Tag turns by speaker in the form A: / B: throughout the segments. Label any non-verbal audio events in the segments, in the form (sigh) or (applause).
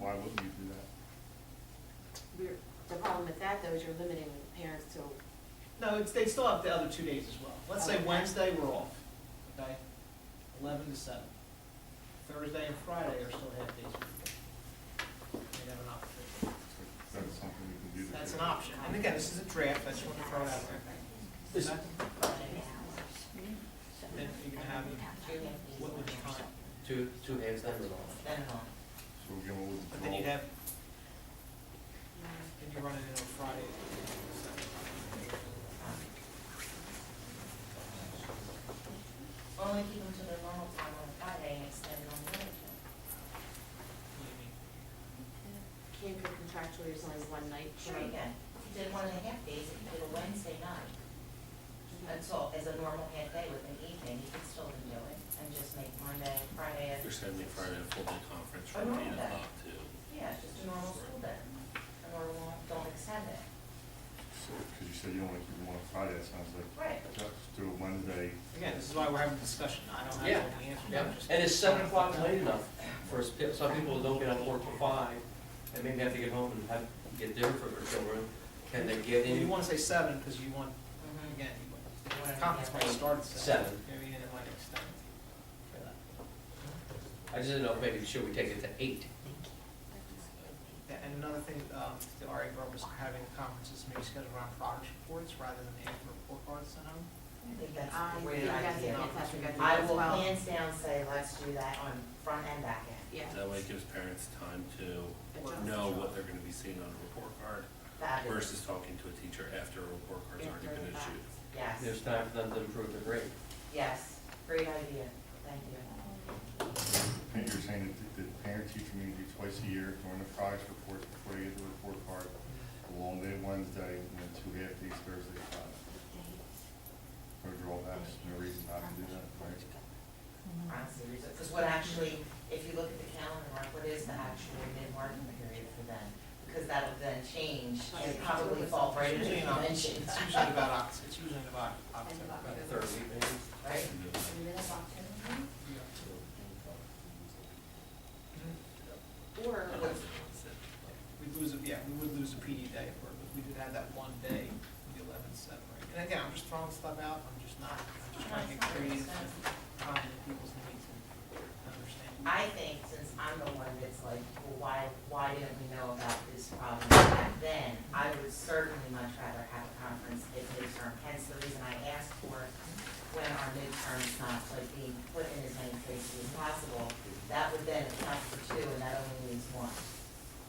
A: wouldn't you do that?
B: We're, the problem with that though is you're limiting parents to,
C: No, it's, they still have the other two days as well. Let's say
B: Okay.
C: Wednesday, we're off, okay? Eleven to seven. Thursday and Friday are still half days. They have an option.
A: That's something we can do. to
C: That's an
A: do.
C: option. And again, this is a draft, I just want to throw it out there. Okay? Then you can have, what would you find?
D: Two, two hands, never long.
C: Then
A: So we're going with
C: But
A: withdrawal.
C: then you'd have,
B: mm,
C: then you run it in on Friday.
E: Only keep them to their normal time on Friday and extend it on Wednesday.
C: What do you mean?
B: can't go contractually, there's only one night. per-
E: Sure you can. If you did one and a half days, if you did a Wednesday night,
B: Mhm.
E: that's all, as a normal half day with an evening, you could still do it and just make Monday, Friday. a-
F: They're sending Friday a full day conference
E: I know
F: from eight
E: that.
F: o'clock to,
E: Yeah, it's just a normal school day. A normal, don't extend it.
A: So, because you said you only do one Friday, it sounds like.
E: Right.
A: Just do it Wednesday.
C: Again, this is why we're having a discussion. I don't have
D: Yeah,
C: all the answers. I'm
D: yeah.
C: just-
D: And is seven o'clock late enough for us, pe- some people don't get on work till five, and maybe have to get home and have, get dinner for their children. Can they get
C: You
D: in
C: want to say seven because you want,
E: Mm-hmm.
C: again, you want, the conference might start at seven.
D: Seven.
C: Maybe and it might extend.
D: I just didn't know, if maybe should we take it to eight?
C: Yeah, And another thing, um, the RA board was having conferences maybe scheduled around progress reports rather than after report cards sent home.
E: I think that's
B: I
E: a
B: think
E: great
B: that's,
E: idea.
B: yes, that's a good idea
E: I
B: as
E: will
B: well.
E: hands down say, let's do that on front and back end.
B: Yeah.
F: that way it gives parents time to
B: Adjust.
F: know what they're gonna be seeing on a report card
E: That is,
F: versus talking to a teacher after a report card's already
B: After
F: been
B: the fact.
F: issued.
E: yes,
D: There's time for them to improve their grade.
E: yes, great idea, thank you.
A: Pa- You're saying that the- the parent-teacher meeting be twice a year during the progress reports before they get the report card. A long day Wednesday and then two half days Thursday, Friday. No drawbacks, no reason not to do that, right?
E: honestly, because what actually, if you look at the calendar, Mark, what is the actual mid-margin period for them? Because that'll then change and probably
D: Oh,
E: fall right into
C: Usually in
E: the
C: Oc- It's
E: convention,
C: usually about, Oct- it's usually about
D: (laughs)
C: October.
D: About the third week, maybe.
E: right?
C: Yeah. Mhm.
B: Or,
F: I don't
B: what-
F: think that's it.
C: We'd lose, a- yeah, we would lose a PD day if we're- if we did have that one day, the eleven seven, right? And again, I'm just throwing stuff out, I'm just not, I'm just trying to get creative and comment people's needs and understanding.
E: I think since I'm the one that's like, well, why, why didn't we know about this problem back then? I would certainly much rather have a conference at midterm, hence the reason I asked for when our midterm's not like being put in as many places as possible. That would then account for two and that only leaves one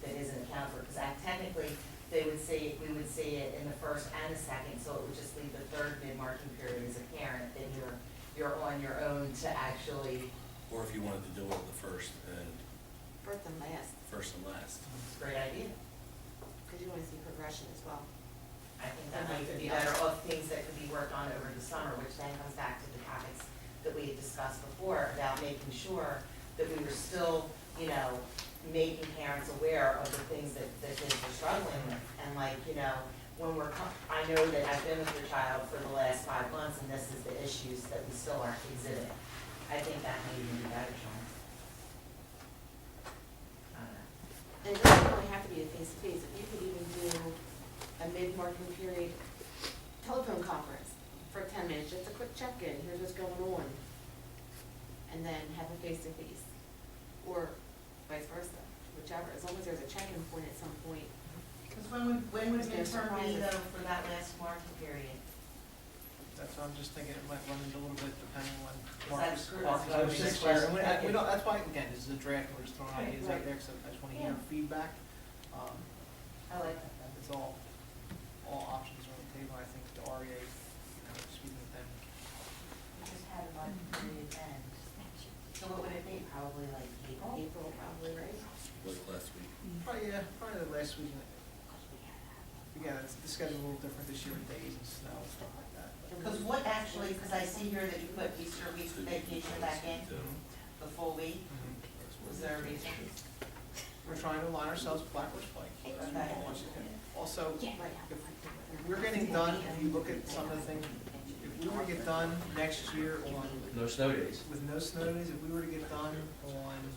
E: that isn't accounted for, because that technically, they would see, we would see it in the first and the second, so it would just leave the third mid-marking period as a parent, then you're, you're on your own to actually
F: Or if you wanted to do it the first and,
B: first and last,
F: first and last.
E: It's a great idea.
B: because you want to see progression as well.
E: I think that might be better of things that could be worked on over the summer, which then comes back to the topics that we had discussed before about making sure that we were still, you know, making parents aware of the things that, that kids were struggling with. And like, you know, when we're, co- I know that I've been with your child for the last five months and this is the issues that we still aren't exhibiting. I think that may even be better, John. I don't know.
B: And it doesn't really have to be a face-to-face, if you could even do a mid-marking period telephone conference for ten minutes, just a quick check-in, here's what's going on. And then have a face-to-face, or vice versa, whichever, as long as there's a check-in point at some point.
E: Because when would, when would
B: Is there
E: midterm be
B: surprises?
E: though for that last marking period?
C: That's what I'm just thinking, it might run into a little bit depending on
E: Is that
C: Marcus.
E: true?
C: Marcus'
E: That's what I was
C: six
E: just
C: years. We
E: wondering.
C: don't- we don't, that's why, again, this is a draft, we're just throwing
E: Right,
C: ideas out
E: right.
C: there, because I just want to hear
E: Yeah.
C: feedback. Um,
E: I like that though.
C: It's all, all options are on the table, I think the REA, you know, speaking with them,
E: We just had a month period end. So what would it be? Probably like April?
B: April probably, right?
F: Like last week.
C: probably, Oh, yeah, probably the last week. in- Again, it's, the schedule's a little different this year with days and snow and stuff like that. but-
E: Because what actually, because I see here that you put Easter week vacation back in,
F: So,
E: the full week, was there a reason?
C: We're trying to align ourselves with Black Horse Pike. That's what we want to do. Also,
B: Right.
C: if we're getting done, if you look at some of the things, if we were to get done next year on,
D: No snow days.
C: with no snow days, if we were to get done on